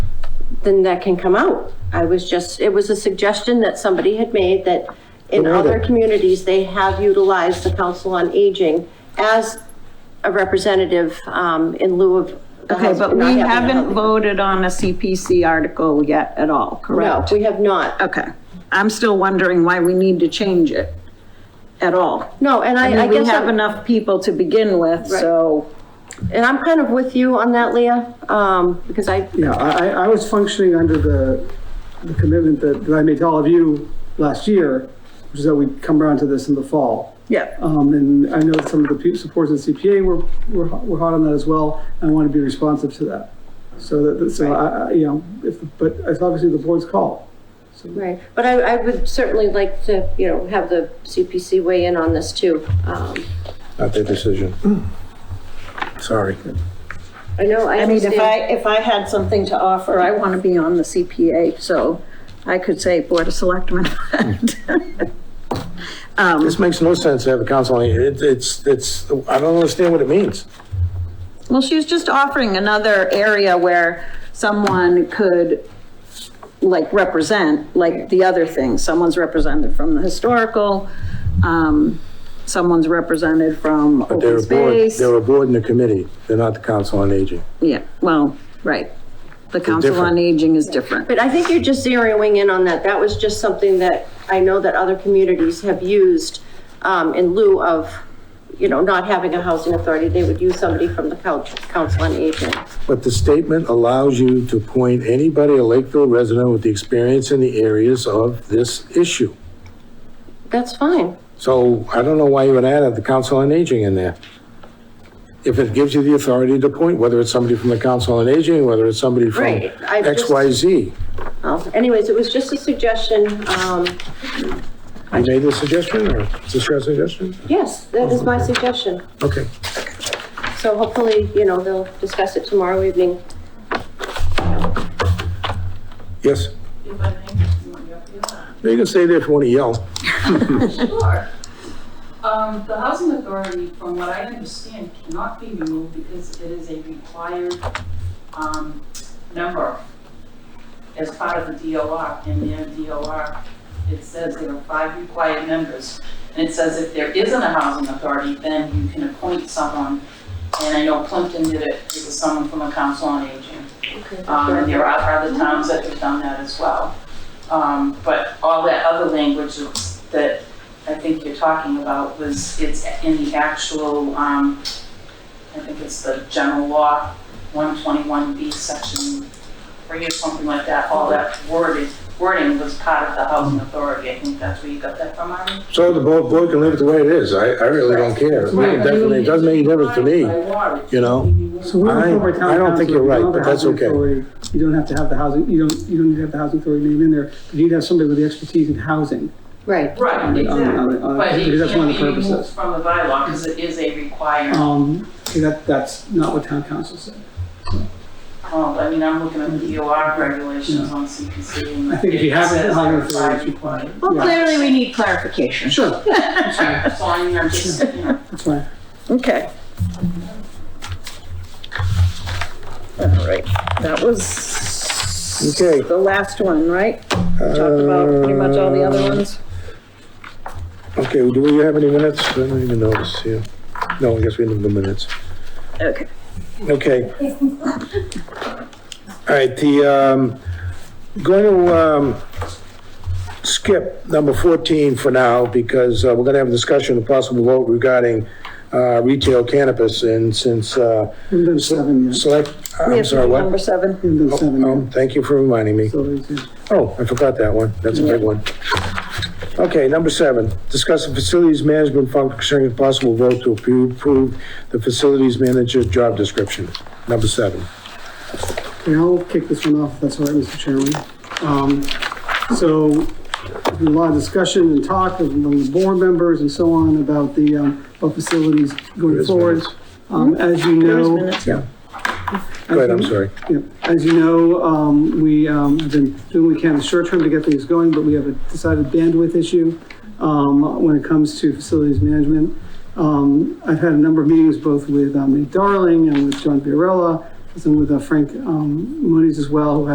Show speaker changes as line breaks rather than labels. then that can come out. I was just, it was a suggestion that somebody had made that in
Good order.
other communities, they have utilized the Council on Aging as a representative, um, in lieu of. the
Okay,
House-
but we
not having a
haven't
healthy-
voted on a CPC article yet at all,
No,
correct?
we have not.
Okay, I'm still wondering why we need to change it at all.
No, and I, I
mean, we
guess,
have
I'm-
enough people to begin with, so,
and I'm kind of with you on that, Leah, um, because I,
Yeah, I, I I was functioning under the, the commitment that, that I made to all of you last year, which is that we'd come around to this in the fall.
yeah,
Um, and I know that some of the pe- supports at CPA were, were, hot- were hot on that as well, and I want to be responsive to that. So that- that, so I, I, you know, if, but it's obviously the board's call.
right, but I, I would certainly like to, you know, have the CPC weigh in on this too. Um,
Not their decision. Hmm. Sorry.
I know, I
I mean, if I,
understand.
if I had something to offer, I want to be on the CPA, so I could say Board of Selectmen.
This makes no sense to have a council on aging. It- It's, it's, I don't understand what it means.
Well, she's just offering another area where someone could like represent, like the other thing, someone's represented from the historical, um, someone's represented from
They're
open
a board,
space.
they're a board and a committee. They're not the council on aging.
Yeah, well, right. The Council on
different.
Aging is different.
But I think you're just zeroing in on that. That was just something that I know that other communities have used um, in lieu of, you know, not having a housing authority, they would use somebody from the couch, council on aging.
But the statement allows you to appoint anybody a Lakeville resident with the experience in the areas of this issue.
That's fine.
So I don't know why you would add the council on aging in there. If it gives you the authority to appoint, whether it's somebody from the council on aging, whether it's somebody from
Right, I've just-
X, Y, Z.
Oh, Anyways, it was just a suggestion. Um,
You made the suggestion or is this your suggestion?
Yes, that is my suggestion.
Okay.
So hopefully, you know, they'll discuss it tomorrow evening.
Yes. You can stay there if you want to yell.
Sure. Um, the housing authority, from what I understand, cannot be removed because it is a required, um, member as part of the DOR, in their DOR, it says there are five required members. And it says if there isn't a housing authority, then you can appoint someone. And I know Plimpton did it, it was someone from a council on aging. Um, and there are other towns that have done that as well. Um, but all that other language that I think you're talking about was, it's in the actual, um, I think it's the general law, one twenty-one B, section three or something like that, all that wording, wording was part of the housing authority, I think that's where you got that from, Marty?
So the board, board can leave it the way it is. I, I really don't care. It
Right.
Definitely, it doesn't make a difference to me. you know?
So we're
I-
over town
I don't think
council,
you're
we
right,
don't have
but
a
that's
housing
okay.
authority. You don't have to have the housing, you don't, you don't need to have the housing authority name in there, but you'd have somebody with the expertise in housing.
Right.
on-
Right,
on-
exactly,
on-
but
because
it
that's one of
can't
the
be removed
purposes.
from the bylaw, because it is a required,
Um, that, that's not what town council said.
oh, I mean, I'm looking at the DOR regulations on CPC and.
Hmm. I think if you
it
have it,
says
housing
required.
authority is required.
Well,
Yeah.
clearly we need clarification.
Sure,
So I mean, I'm just, you know.
that's fine.
Okay. All right, that was
Okay.
the last one, right? We Talked about pretty much all the
Um,
other ones.
Okay, do we have any minutes? I don't even notice here. No, I guess we didn't have the minutes.
Okay.
Okay. All right, the, um, going to, um, skip number 14 for now because uh, we're going to have a discussion of possible vote regarding, uh, retail cannabis and since, uh,
We've done seven yet.
select,
We
I'm
have
sorry,
Number
what?
seven.
We've done seven
Oh,
yet.
thank you for reminding me.
So it's, uh,
Oh, I forgot that one. That's a big one. Okay, number seven, discuss the facilities management function and possible vote to approve- approve the facilities manager job description. Number seven.
Okay, I'll kick this one off, if that's all right, Mr. Chairman. Um, So, there's been a lot of discussion and talk among the board members and so on about the, um, about facilities going
is
forward.
minutes.
Um, As you
There's
know.
minutes.
Yeah. Go ahead, I'm sorry.
Yeah, As you know, um, we, um, have been doing what we can in the short term to get things going, but we have a decided bandwidth issue, um, when it comes to facilities management. Um, I've had a number of meetings both with, uh, um, Nate Darling and with John Biorella, and with uh, Frank, um, Muniz as well, who